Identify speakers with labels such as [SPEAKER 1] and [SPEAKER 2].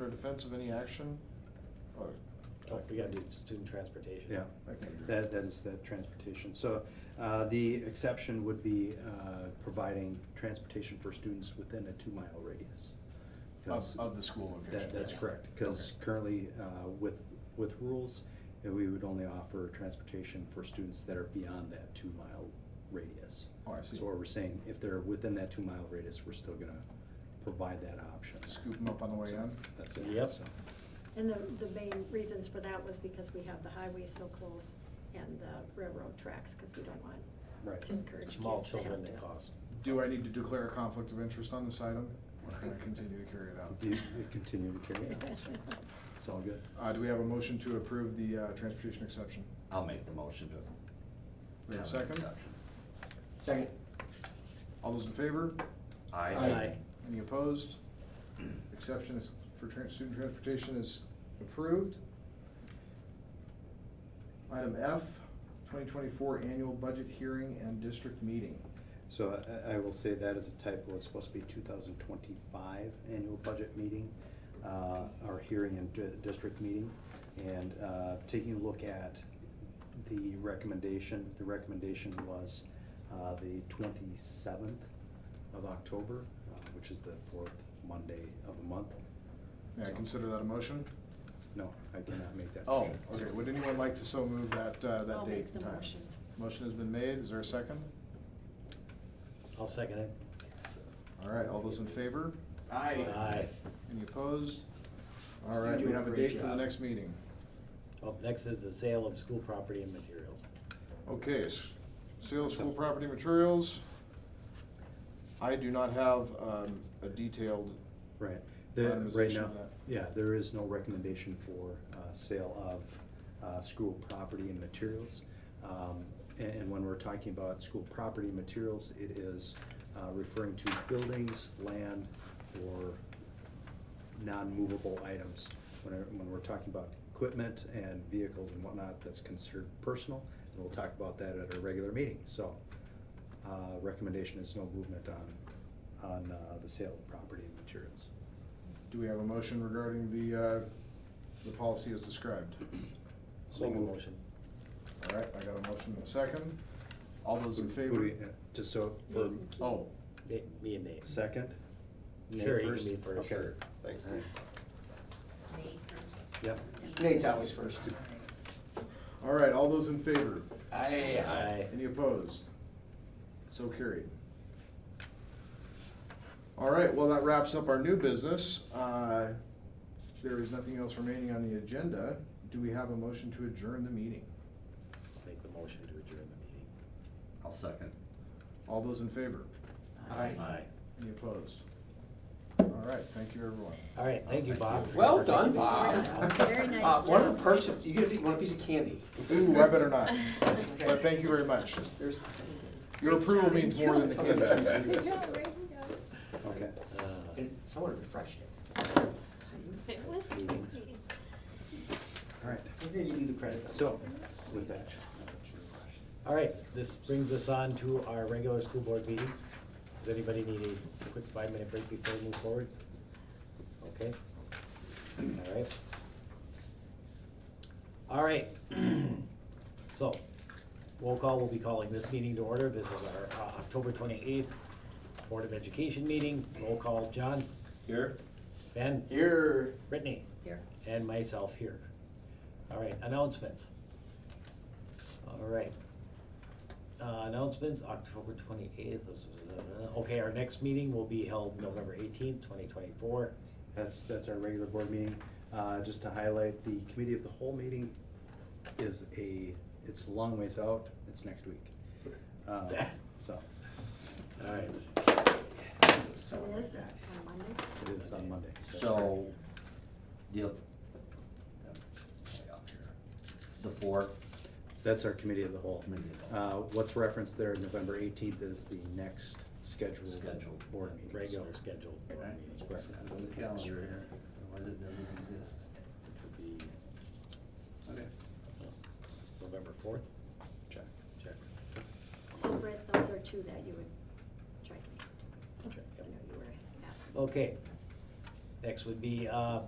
[SPEAKER 1] or defense of any action? Or,
[SPEAKER 2] Oh, we gotta do student transportation.
[SPEAKER 3] Yeah,
[SPEAKER 1] okay.
[SPEAKER 3] that, that is the transportation. So uh, the exception would be uh, providing transportation for students within a two-mile radius. 'Cause
[SPEAKER 1] Of, of the school location.
[SPEAKER 3] That, that's
[SPEAKER 1] yes.
[SPEAKER 3] correct, because currently uh, with, with rules, uh, we would only offer transportation for students that are beyond that two-mile radius.
[SPEAKER 1] Oh, I see.
[SPEAKER 3] So what we're saying, if they're within that two-mile radius, we're still gonna provide that option.
[SPEAKER 1] Scoop them up on the way in?
[SPEAKER 3] That's it.
[SPEAKER 2] Yep.
[SPEAKER 3] So-
[SPEAKER 4] And the, the main reasons for that was because we have the highway so close and the railroad tracks, because we don't want
[SPEAKER 3] Right.
[SPEAKER 4] to encourage kids to
[SPEAKER 2] Small
[SPEAKER 4] have
[SPEAKER 2] children
[SPEAKER 4] to-
[SPEAKER 2] that cost.
[SPEAKER 1] Do I need to declare a conflict of interest on this item? Or can I continue to carry it out?
[SPEAKER 3] Do you Continue to carry it on, so it's all good.
[SPEAKER 1] Uh, do we have a motion to approve the, uh, transportation exception?
[SPEAKER 5] I'll make the motion to.
[SPEAKER 1] We have a
[SPEAKER 5] have an
[SPEAKER 1] second?
[SPEAKER 5] exception.
[SPEAKER 2] Second.
[SPEAKER 1] All those in favor?
[SPEAKER 5] Aye.
[SPEAKER 2] Aye.
[SPEAKER 1] Any opposed? Exception is, for tran- student transportation is approved. Item F, twenty twenty-four annual budget hearing and district meeting.
[SPEAKER 3] So I, I will say that is a typo, it's supposed to be two thousand twenty-five annual budget meeting, uh, our hearing and di- district meeting. And, uh, taking a look at the recommendation, the recommendation was, uh, the twenty-seventh of October, uh, which is the fourth Monday of the month.
[SPEAKER 1] May I consider that a motion?
[SPEAKER 3] No, I cannot make that.
[SPEAKER 1] Oh,
[SPEAKER 3] motion.
[SPEAKER 1] okay, would anyone like to so move that, uh, that date?
[SPEAKER 4] I'll make the
[SPEAKER 1] and time?
[SPEAKER 4] motion.
[SPEAKER 1] Motion has been made, is there a second?
[SPEAKER 2] I'll second it.
[SPEAKER 1] All right, all those in favor?
[SPEAKER 2] Aye.
[SPEAKER 1] Any opposed? All right,
[SPEAKER 5] You do
[SPEAKER 1] we
[SPEAKER 5] a
[SPEAKER 1] have a
[SPEAKER 5] great
[SPEAKER 1] date for the
[SPEAKER 5] job.
[SPEAKER 1] next meeting.
[SPEAKER 2] Up next is the sale of school property and materials.
[SPEAKER 1] Okay, s- sale of school property materials. I do not have um, a detailed,
[SPEAKER 3] Right, the, right
[SPEAKER 1] Itemization
[SPEAKER 3] now,
[SPEAKER 1] of that.
[SPEAKER 3] yeah, there is no recommendation for, uh, sale of, uh, school property and materials. Um, a- and, when we're talking about school property and materials, it is, uh, referring to buildings, land, or non-movable items. When, I- when we're talking about equipment and vehicles and whatnot, that's considered personal, and we'll talk about that at a regular meeting, so. Uh, recommendation is no movement on, on, uh, the sale of property and materials.
[SPEAKER 1] do we have a motion regarding the, uh, the policy as described?
[SPEAKER 2] I'll Make a motion.
[SPEAKER 1] All right, I got a motion and a second. All those in
[SPEAKER 3] Who- who do
[SPEAKER 1] favor?
[SPEAKER 3] we- uh, Just so, for
[SPEAKER 4] Nate and Keith.
[SPEAKER 1] Oh,
[SPEAKER 2] Me- Me and Nate.
[SPEAKER 3] second? Nate
[SPEAKER 2] Sure, you can
[SPEAKER 3] first?
[SPEAKER 2] be first.
[SPEAKER 3] Okay.
[SPEAKER 2] Sure.
[SPEAKER 3] Thanks,
[SPEAKER 2] Nate.
[SPEAKER 6] May first.
[SPEAKER 3] Yep.
[SPEAKER 5] Nate's always first.
[SPEAKER 1] all right, all those in favor?
[SPEAKER 5] Aye.
[SPEAKER 2] Aye.
[SPEAKER 1] Any opposed? So carried. All right, well, that wraps up our new business. Uh, There is nothing else remaining on the agenda. Do we have a motion to adjourn the meeting?
[SPEAKER 2] Make the motion to adjourn the
[SPEAKER 5] I'll second.
[SPEAKER 1] All those in favor?
[SPEAKER 2] meeting. Aye.
[SPEAKER 1] Any opposed? All right, thank you, everyone.
[SPEAKER 2] All right, thank you, Bob.
[SPEAKER 7] Well done, Bob.
[SPEAKER 4] Very nice
[SPEAKER 7] Uh, One of
[SPEAKER 4] job.
[SPEAKER 7] the perks of, you get a, piece- want a piece of candy.
[SPEAKER 1] Ooh, I better not. But thank you very much.
[SPEAKER 7] There's,
[SPEAKER 1] Your approval means more than the candy.
[SPEAKER 3] Okay.
[SPEAKER 2] Uh,
[SPEAKER 7] and someone refreshed it.
[SPEAKER 4] It was
[SPEAKER 2] meetings.
[SPEAKER 3] All right,
[SPEAKER 7] We're gonna give you the credit.
[SPEAKER 3] so, with that.
[SPEAKER 2] All right, this brings us on to our regular school board meeting. Does anybody need a quick five-minute break before we move forward? Okay, all right. All right, so, roll call, we'll be calling this meeting to order. This is our uh, October twenty-eighth Board of Education meeting. Roll call, John,
[SPEAKER 1] Here?
[SPEAKER 2] Ben,
[SPEAKER 7] You're.
[SPEAKER 2] Brittany,
[SPEAKER 4] here.
[SPEAKER 2] and myself here. All right, announcements. All right. Uh, Announcements, October twenty-eighth. uh, Okay, our next meeting will be held November eighteenth, twenty twenty-four.
[SPEAKER 3] That's, that's our regular board meeting. Uh, Just to highlight, the committee of the whole meeting is a, it's a long ways out, it's next week. Um, So,
[SPEAKER 2] All right.
[SPEAKER 4] So it is on Monday?
[SPEAKER 3] it is on Monday. That's
[SPEAKER 5] So, the, the fourth,
[SPEAKER 3] That's our committee of the whole.
[SPEAKER 5] Committee of the
[SPEAKER 3] Uh, What's referenced there, November 18th is the next scheduled.
[SPEAKER 5] Scheduled.
[SPEAKER 3] Board meeting.
[SPEAKER 2] Regular scheduled board meetings.
[SPEAKER 3] Correct.
[SPEAKER 5] on the calendar here, otherwise it doesn't exist.
[SPEAKER 2] Which would be
[SPEAKER 5] Okay.
[SPEAKER 2] November fourth,
[SPEAKER 3] Check.
[SPEAKER 2] check.
[SPEAKER 4] So um, Brett, those are two that you would try to make.
[SPEAKER 2] Okay.
[SPEAKER 4] I know you were asking.
[SPEAKER 2] Okay. Next would be uh,